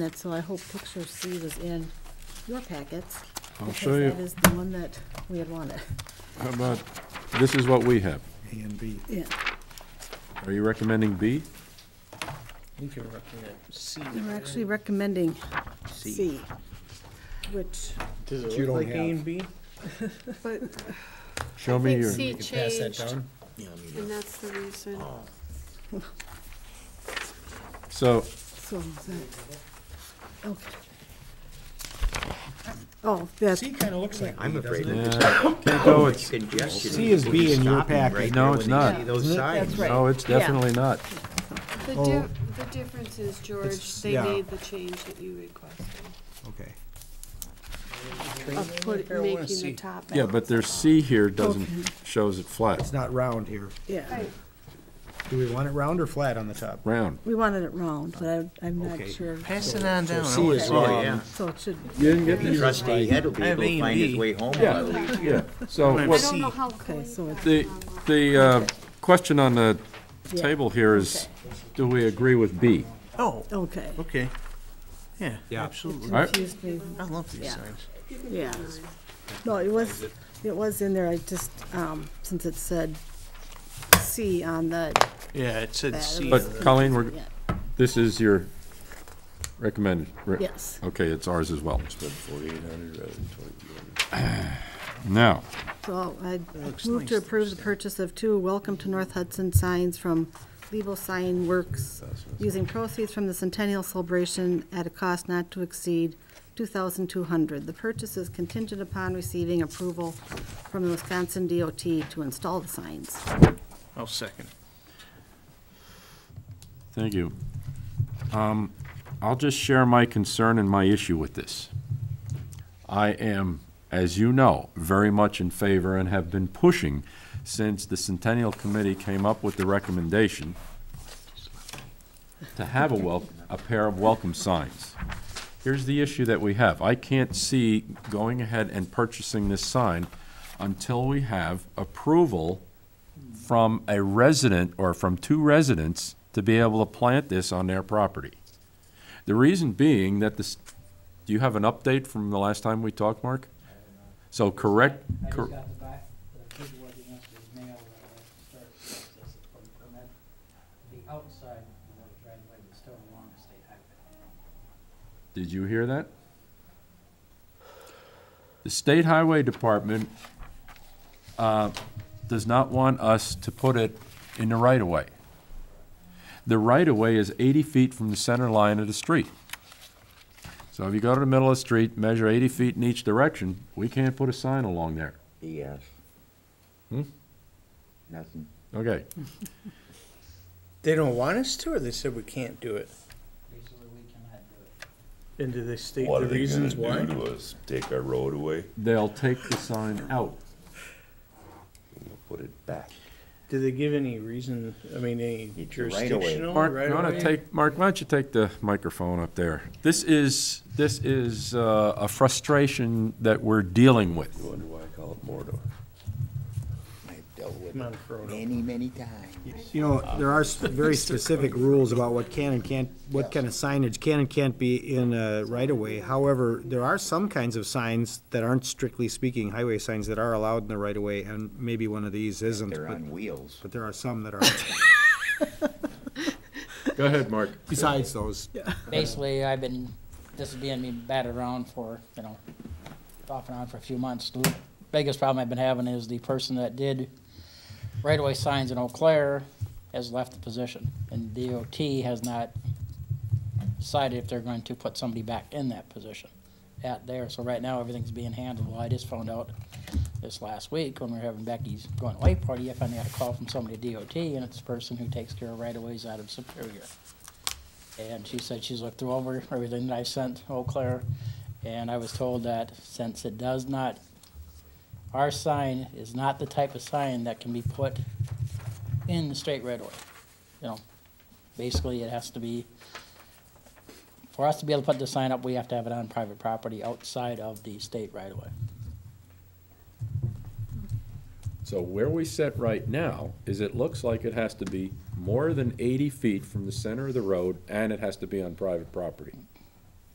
That, so I hope picture C was in your packets. I'll because show you. That is the one that we had wanted. How about, this is what we have. A and B. Yeah, Are you recommending B? I think you're looking at C. they're actually recommending C, which, Does But it you look don't like A have- and B? But Show I me think your, C You can pass that changed, down? and that's the reason. so, so, is that- okay. Oh, that's, C kinda looks like B, I'm afraid doesn't it? of yeah, uh, can't go, this it's, congestion. C is People just B in your stopping right packet. No, there it's when they not. see Those signs. that's right. no, Oh, it's Yeah. definitely not. The Oh. di- the difference is, George, It's- they yeah. made the change that you requested Okay. of put, I wanna making the see. top. Yeah, but their C here doesn't, Mm-hmm. shows it It's flat, not round here. yeah, Right. Do we want it round or flat on the top? round. we wanted it round, but I- I'm not Okay. sure, Pass it on down. I C wanna is see. wrong. Oh, yeah. so it should, You didn't get The these? trustee head will be I have able A to and find B. his way home, Yeah. I believe. Yeah, so I I what, don't know C. how. clean so that the, one was. the, uh, question on the Yeah. table here is, do we agree with B? Oh, okay. okay. Yeah, absolutely. Alright. Confused me, I love these Yeah. signs. yeah. No, it was, it was in there, I just, um, since it said C on the, Yeah, it said That C. was- on But the- Colleen, we're, Yeah. this is your recommended. re- yes. Okay, it's ours as well. Now, So I looks move to nice, approve the purchase of two Welcome to North Hudson signs from Lebo Sign Works using proceeds from the centennial celebration at a cost not to exceed two thousand two hundred. The purchase is contingent upon receiving approval from the Wisconsin DOT to install the signs. I'll Oh, second. Thank you. Um, I'll just share my concern and my issue with this. I am, as you know, very much in favor and have been pushing since the Centennial Committee came up with the recommendation to have a wel, a pair of welcome signs. Here's the issue that we have. I can't see going ahead and purchasing this sign until we have approval from a resident or from two residents to be able to plant this on their property. The reason being that this, do you have an update from the last time we talked, Mark? So correct, I just cor- got the back, the paperwork that must be mailed, and I have to start the process of putting permit. The outside of the driveway was still along the state highway. Did you hear that? The State Highway Department uh, does not want us to put it in the right-of-way. The right-of-way is 80 feet from the center line of the street. So if you go to the middle of the street, measure 80 feet in each direction, we can't put a sign along there. Yes. Hmm? Nothing. Okay, They don't want us to, or they said we can't do it? Basically, we cannot do it. And do they state What the are they gonna reasons do why? to us? Take our road away? they'll take the sign out. We'll Put it back. Do they give any reason, I mean, any It's a right of way. jurisdictional right Mark, of you wanna way? take, Mark, why don't you take the microphone up there? This is, this is uh, a frustration that we're dealing with. You wonder why I call it Mordor? I've dealt with Come on, it Frodo. many, many times. You know, there are s- very specific rules about what can and can't, what kind of signage can and can't be in a right-of-way. However, there are some kinds of signs that aren't strictly speaking highway signs that are allowed in the right-of-way, and maybe one of these isn't, They're but, on wheels. but there are some that are Go ahead, Mark. besides those. Basically, I've been, this is being me batted around for, you know, off and on for a few months. The Biggest problem I've been having is the person that did right-of-way signs in Eau Claire has left the position, and DOT has not decided if they're going to put somebody back in that position at there. So right now, everything's being handled. Well, I just found out this last week when we were having Becky's going away party, I finally got a call from somebody at DOT, and it's the person who takes care of right-of-ways out of Superior. And she said she's looked through over everything that I sent Eau Claire, and I was told that since it does not, our sign is not the type of sign that can be put in the straight right away. You know, basically it has to be, for us to be able to put the sign up, we have to have it on private property outside of the state right away. So where we sit right now is it looks like it has to be more than eighty feet from the center of the road, and it has to be on private property.